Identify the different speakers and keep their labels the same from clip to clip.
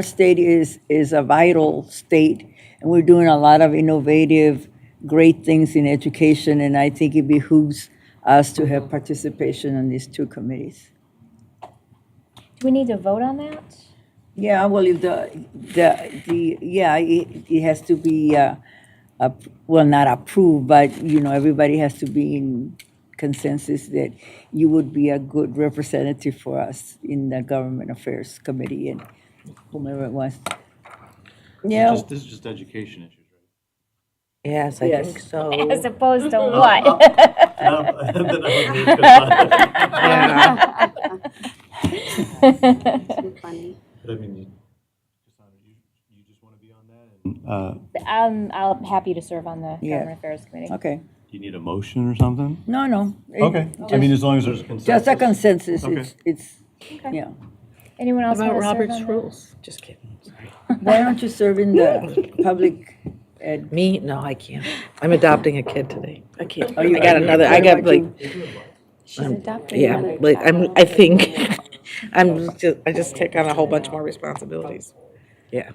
Speaker 1: Our state is, is a vital state, and we're doing a lot of innovative, great things in education, and I think it behooves us to have participation on these two committees.
Speaker 2: Do we need to vote on that?
Speaker 1: Yeah, well, if the, the, the, yeah, it, it has to be, uh, ap- well, not approved, but, you know, everybody has to be in consensus that you would be a good representative for us in the Government Affairs Committee and whomever it was. Yeah,
Speaker 3: Just- This is just education issues,
Speaker 4: Yes, I think
Speaker 1: Yes.
Speaker 4: so.
Speaker 2: As opposed to what?
Speaker 3: right?
Speaker 4: Yeah.
Speaker 5: Funny.
Speaker 3: But I mean, you, Cassandra, you, you just want to be on that? Uh,
Speaker 2: Um, I'm happy to serve on the
Speaker 1: Yeah.
Speaker 2: Government Affairs Committee.
Speaker 1: okay.
Speaker 3: you need a motion or something?
Speaker 1: No, no. it-
Speaker 3: I mean, as long as there's consensus.
Speaker 1: Just a consensus,
Speaker 3: Okay.
Speaker 1: it's, it's, yeah.
Speaker 2: Anyone else want
Speaker 6: About
Speaker 2: to serve
Speaker 6: Robert's
Speaker 2: on that?
Speaker 6: rules. Just kidding.
Speaker 1: Why don't you serve in the public, ed-
Speaker 6: Me? No, I can't. I'm adopting a kid today. I can't.
Speaker 1: Are you-
Speaker 6: I Oh, got another, I got like,
Speaker 5: She's adopting.
Speaker 6: yeah,
Speaker 5: another
Speaker 6: like I'm,
Speaker 5: child.
Speaker 6: I think, I'm just, I just take on a whole bunch more responsibilities. Yeah.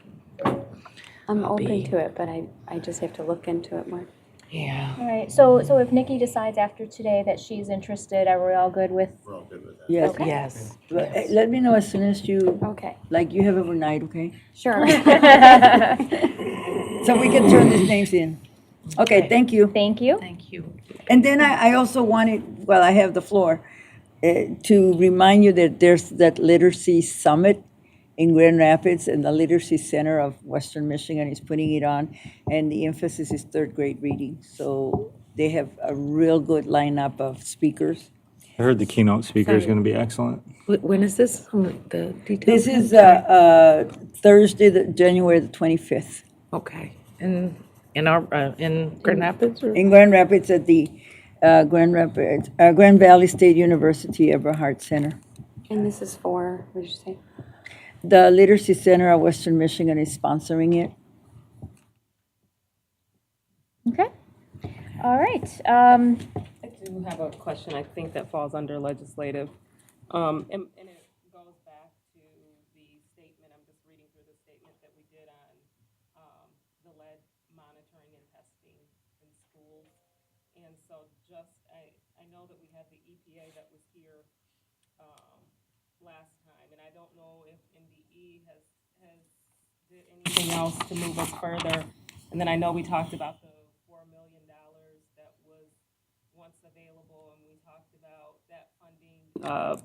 Speaker 5: I'm open to it, but I, I just have to look into it more.
Speaker 6: Yeah.
Speaker 2: All right, so, so if Nikki decides after today that she's interested, are we all good with?
Speaker 1: yes.
Speaker 6: Yes.
Speaker 1: Well, eh, Let me know as soon as you,
Speaker 5: Okay,
Speaker 1: like, you have overnight, okay?
Speaker 5: sure.
Speaker 1: So we can turn these names in. Okay, thank you.
Speaker 2: Thank you.
Speaker 6: Thank you.
Speaker 1: And then I, I also wanted, well, I have the floor, eh, to remind you that there's that literacy summit in Grand Rapids, and the Literacy Center of Western Michigan is putting it on, and the emphasis is third grade reading. So they have a real good lineup of speakers.
Speaker 7: I heard the keynote speaker is going to be excellent.
Speaker 6: Wh- When is this? Um, The details?
Speaker 1: This is uh, uh, Thursday, the- January the 25th,
Speaker 6: Okay. In, in our, uh, in Grand Rapids or?
Speaker 1: in Grand Rapids at the uh, Grand Rapids, uh, Grand Valley State University Everhart Center.
Speaker 5: And this is for, what did you say?
Speaker 1: The Literacy Center of Western Michigan is sponsoring it.
Speaker 2: Okay. All right, um,
Speaker 8: I do have a question, I think that falls under legislative. Um, and, and it goes back to the statement, I'm just reading through the statement that we did on, um, the lead monitoring and testing in schools. And so just, I, I know that we had the EPA that was here, um, last time, and I don't know if NDE has, has did anything else to move us further. And then I know we talked about the four million dollars that was once available, and we talked about that funding uh,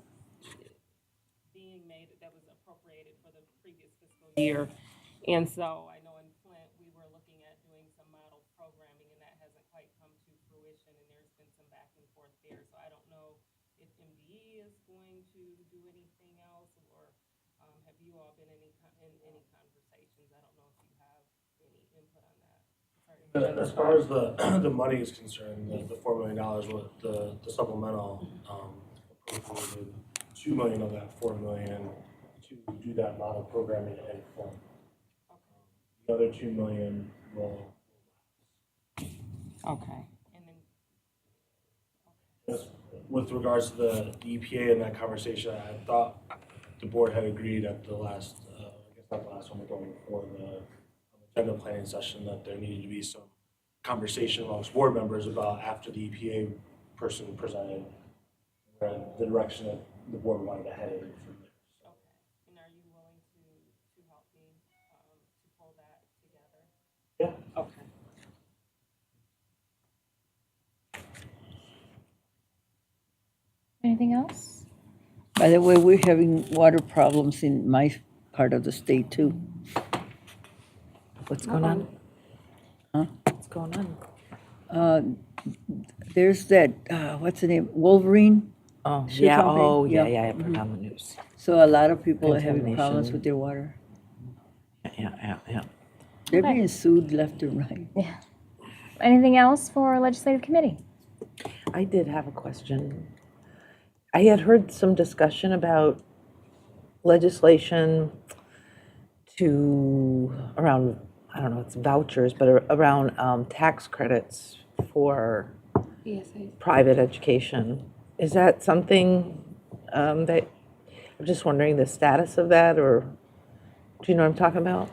Speaker 8: being made, that was appropriated for the previous fiscal year. And so I know in Flint, we were looking at doing some model programming, and that hasn't quite come to fruition, and there's been some back and forth there. So I don't know if MDE is going to do anything else, or um, have you all been any, con- in any conversations? I don't know if you have any input on that.
Speaker 9: As far as the, the money is concerned, the, the four million dollars, with the the supplemental, um, appropriated two million of that four million to do that model programming and form. The other two million will,
Speaker 8: Okay. And then
Speaker 9: as- with regards to the EPA and that conversation, I thought the board had agreed at the last, uh, I guess not the last one, but the one before the agenda planning session, that there needed to be some conversation amongst board members about after the EPA person presented uh, the direction that the board wanted to head in from there.
Speaker 8: And are you willing to, to help me, um, to pull that together?
Speaker 9: Yeah.
Speaker 8: Okay.
Speaker 2: anything else?
Speaker 1: By the way, we're having water problems in my part of the state, too.
Speaker 6: What's going on? Huh? What's going on?
Speaker 1: There's that, uh, what's the name, Wolverine?
Speaker 6: Oh,
Speaker 1: She
Speaker 6: yeah.
Speaker 1: told me,
Speaker 6: Oh, yeah,
Speaker 1: yeah.
Speaker 6: yeah. I put it on the news.
Speaker 1: So a lot of people are having problems
Speaker 6: Contamination.
Speaker 1: with their water.
Speaker 6: Yeah, yeah, yeah.
Speaker 1: They're being sued left and right.
Speaker 2: Anything else for legislative committee?
Speaker 6: I did have a question. I had heard some discussion about legislation to, around, I don't know, it's vouchers, but ar- around um, tax credits for
Speaker 5: Yes, I,
Speaker 6: private education. Is that something um, that, I'm just wondering the status of that or Do you know what I'm talking about?